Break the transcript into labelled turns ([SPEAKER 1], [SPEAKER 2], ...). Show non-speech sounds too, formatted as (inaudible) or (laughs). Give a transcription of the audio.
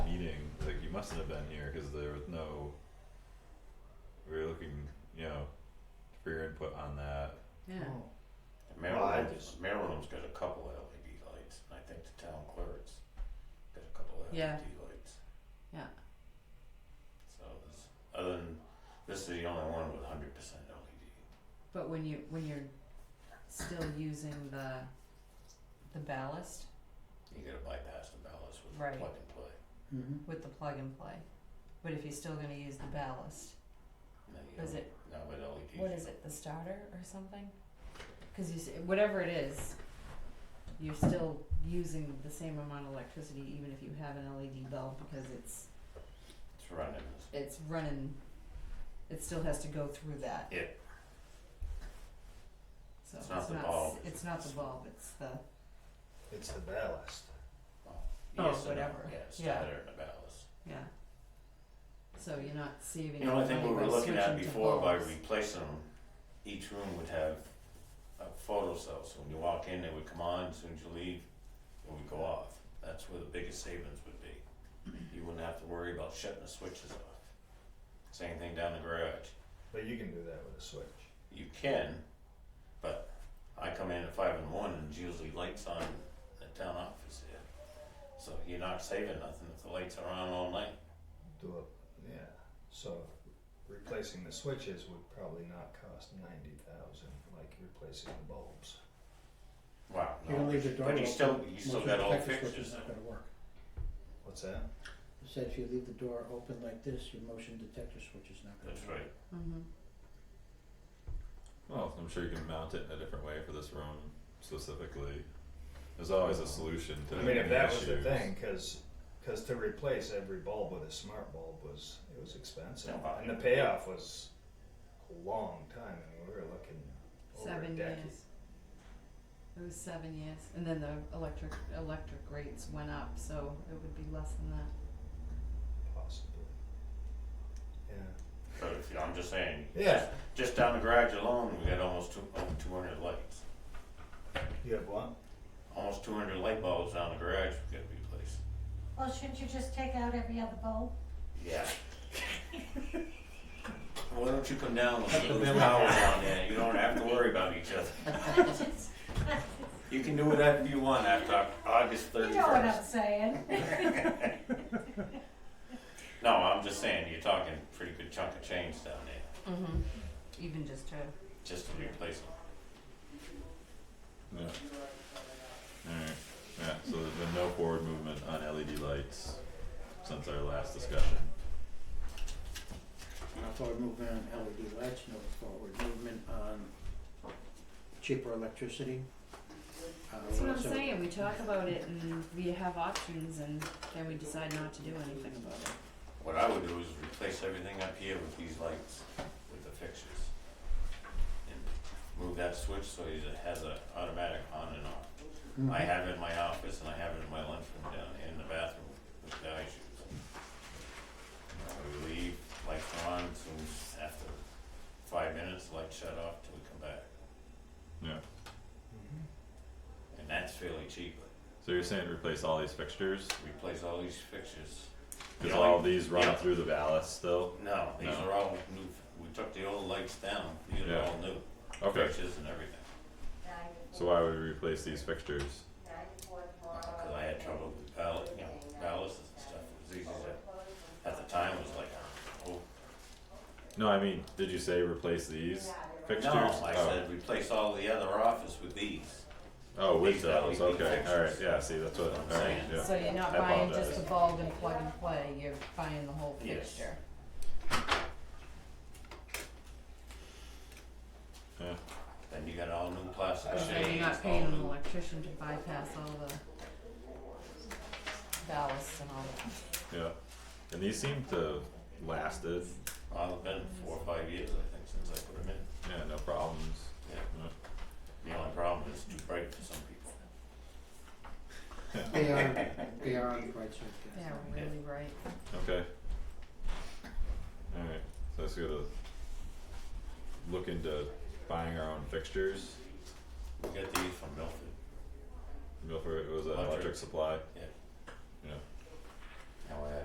[SPEAKER 1] mustn't have been here because there was no. We were looking, you know, for your input on that.
[SPEAKER 2] yeah.
[SPEAKER 3] Oh.
[SPEAKER 4] Maryland,
[SPEAKER 3] Well, I just-
[SPEAKER 4] Maryland's got a couple of LED lights, and I think the town clerk's got a couple of LED
[SPEAKER 2] Yeah.
[SPEAKER 4] lights.
[SPEAKER 2] Yeah.
[SPEAKER 4] So this, other than, this is the only one with hundred percent E LED.
[SPEAKER 2] But when you, when you're still using the, the ballast
[SPEAKER 4] You gotta bypass the ballast with
[SPEAKER 2] Right.
[SPEAKER 4] plug and play.
[SPEAKER 3] Mm-hmm.
[SPEAKER 2] with the plug and play, but if you're still gonna use the ballast,
[SPEAKER 4] No, you
[SPEAKER 2] Is
[SPEAKER 4] don't-
[SPEAKER 2] it-
[SPEAKER 4] Not with LEDs.
[SPEAKER 2] what is it, the starter or something? Cause you s whatever it is, you're still using the same amount of electricity even if you have an LED bulb because it's,
[SPEAKER 4] It's running, this-
[SPEAKER 2] it's running, it still has to go through that.
[SPEAKER 4] Yeah.
[SPEAKER 2] So
[SPEAKER 4] It's
[SPEAKER 2] it's
[SPEAKER 4] not
[SPEAKER 2] not,
[SPEAKER 4] the
[SPEAKER 2] s-
[SPEAKER 4] bulb,
[SPEAKER 2] it's
[SPEAKER 4] it's-
[SPEAKER 2] not the bulb, it's the,
[SPEAKER 3] It's the ballast.
[SPEAKER 4] well,
[SPEAKER 2] Oh,
[SPEAKER 4] yes and no,
[SPEAKER 2] whatever.
[SPEAKER 4] yeah, it's
[SPEAKER 2] Yeah.
[SPEAKER 4] better than a ballast.
[SPEAKER 2] yeah. So you're not saving
[SPEAKER 4] You know, I think
[SPEAKER 2] money
[SPEAKER 4] what we
[SPEAKER 2] by
[SPEAKER 4] were looking at
[SPEAKER 2] switching to
[SPEAKER 4] before by
[SPEAKER 2] bulbs.
[SPEAKER 4] replacing them, each room would have a photo cell, so when you walk in, they would come on, as soon as you leave, it would go off. That's where the biggest savings would be. You wouldn't have to worry about shutting the switches off. Same thing down the garage.
[SPEAKER 3] But you can do that with a switch.
[SPEAKER 4] You can, but I come in at five in the morning and it's usually lights on in the town office here. So you're not saving nothing if the lights are on all night.
[SPEAKER 3] Do a, yeah. So replacing the switches would probably not cost ninety thousand, like replacing the bulbs.
[SPEAKER 4] Wow,
[SPEAKER 5] You don't
[SPEAKER 4] no,
[SPEAKER 5] leave the door
[SPEAKER 4] but
[SPEAKER 5] open.
[SPEAKER 4] you still, you still
[SPEAKER 5] Most
[SPEAKER 4] got all the
[SPEAKER 5] detector switch
[SPEAKER 4] fixtures
[SPEAKER 5] is
[SPEAKER 4] in.
[SPEAKER 5] not gonna work.
[SPEAKER 3] What's that?
[SPEAKER 5] It said if you leave the door open like this, your motion detector switch is not gonna work.
[SPEAKER 4] That's right.
[SPEAKER 2] Mhm.
[SPEAKER 1] Well, I'm sure you can mount it in a different way for this room specifically. There's always a solution to
[SPEAKER 3] I mean, if
[SPEAKER 1] any
[SPEAKER 3] that was the
[SPEAKER 1] issues.
[SPEAKER 3] thing, cause, 'cause to replace every bulb with a smart bulb was, it was expensive.
[SPEAKER 4] Yeah.
[SPEAKER 3] And the payoff was a long time, and we were looking over a
[SPEAKER 2] Seven
[SPEAKER 3] decade.
[SPEAKER 2] years. It was seven years, and then the electric, electric rates went up, so it would be less than that.
[SPEAKER 3] Possibly. Yeah,
[SPEAKER 4] But if, I'm just saying.
[SPEAKER 3] Yeah.
[SPEAKER 4] Just down the garage alone, we got almost two, over two hundred lights.
[SPEAKER 3] you have one?
[SPEAKER 4] Almost two hundred light bulbs down the garage we gotta replace.
[SPEAKER 6] Well, shouldn't you just take out every other bulb? (laughs)
[SPEAKER 4] Yeah. (laughs) Why don't you come down with
[SPEAKER 5] Cut the
[SPEAKER 4] those
[SPEAKER 5] bill.
[SPEAKER 4] towers on there, you don't have to worry about each other.
[SPEAKER 2] (laughs)
[SPEAKER 4] You can do whatever you want after Au- August
[SPEAKER 6] You
[SPEAKER 4] thirty
[SPEAKER 6] know what I'm
[SPEAKER 4] first.
[SPEAKER 6] saying?
[SPEAKER 4] No, I'm just saying, you're talking pretty good chunk of change down there,
[SPEAKER 2] Mm-hmm. Even just to,
[SPEAKER 4] just to replace them.
[SPEAKER 1] Yeah. Alright, yeah, so there's been no forward movement on LED lights since our last discussion.
[SPEAKER 5] No forward movement on LED lights, no forward movement on cheaper electricity. Uh,
[SPEAKER 2] that's what I'm
[SPEAKER 5] also-
[SPEAKER 2] saying, we talk about it and we have options and then we decide not to do anything about it.
[SPEAKER 4] What I would do is replace everything up here with these lights, with the fixtures. And move that switch so it has a automatic on and off.
[SPEAKER 5] Mhm.
[SPEAKER 1] Mm-hmm.
[SPEAKER 4] I have it in my office and I have it in my lunchroom down here in the bathroom with the eye shoes. When We leave, lights are on, soon as after five minutes, lights shut off till we come back.
[SPEAKER 1] Yeah,
[SPEAKER 3] Mm-hmm.
[SPEAKER 4] And that's fairly cheap.
[SPEAKER 1] so you're saying replace all these fixtures?
[SPEAKER 4] Replace all these fixtures.
[SPEAKER 1] Cause
[SPEAKER 4] Yeah.
[SPEAKER 1] all these
[SPEAKER 4] Yeah.
[SPEAKER 1] run through the ballast still?
[SPEAKER 4] No, these
[SPEAKER 1] No.
[SPEAKER 4] are all new, we took the old lights down, these are
[SPEAKER 1] Yeah.
[SPEAKER 4] all new.
[SPEAKER 1] Okay,
[SPEAKER 4] Fixtures and everything.
[SPEAKER 1] so why would we replace these fixtures?
[SPEAKER 4] Cause I had trouble with ball- you know, ballasts and stuff, it was easy to, at the time it was like, oh.
[SPEAKER 1] No, I mean, did you say replace these fixtures?
[SPEAKER 4] No, I
[SPEAKER 1] Oh.
[SPEAKER 4] said replace all the other office with these.
[SPEAKER 1] Oh, with
[SPEAKER 4] These
[SPEAKER 1] those,
[SPEAKER 4] LED
[SPEAKER 1] okay,
[SPEAKER 4] fixtures.
[SPEAKER 1] alright, yeah, see, that's what,
[SPEAKER 4] That's what I'm
[SPEAKER 1] alright,
[SPEAKER 4] saying.
[SPEAKER 1] yeah.
[SPEAKER 2] So you're not
[SPEAKER 1] I
[SPEAKER 2] buying just
[SPEAKER 1] apologize.
[SPEAKER 2] the bulb and plug and play, you're buying the whole
[SPEAKER 4] Yes.
[SPEAKER 2] fixture.
[SPEAKER 1] Yeah.
[SPEAKER 4] Then you got all new plastic
[SPEAKER 2] So
[SPEAKER 4] shades,
[SPEAKER 2] you're not
[SPEAKER 4] all
[SPEAKER 2] paying an
[SPEAKER 4] new-
[SPEAKER 2] electrician to bypass all the ballast and all that.
[SPEAKER 1] Yeah, and these seem to have lasted,
[SPEAKER 4] Well, it's been four or five years, I think, since I put them in.
[SPEAKER 1] yeah, no problems.
[SPEAKER 4] Yeah. The only problem is too bright for some people.
[SPEAKER 5] They are, they are on the bright side, yes.
[SPEAKER 2] Yeah, we're really right.
[SPEAKER 1] Okay. Alright, so let's go to look into buying our own fixtures.
[SPEAKER 4] We got these from Milford,
[SPEAKER 1] Milford, it was an
[SPEAKER 4] Electric.
[SPEAKER 1] electric supply.
[SPEAKER 4] yeah.
[SPEAKER 1] Yeah.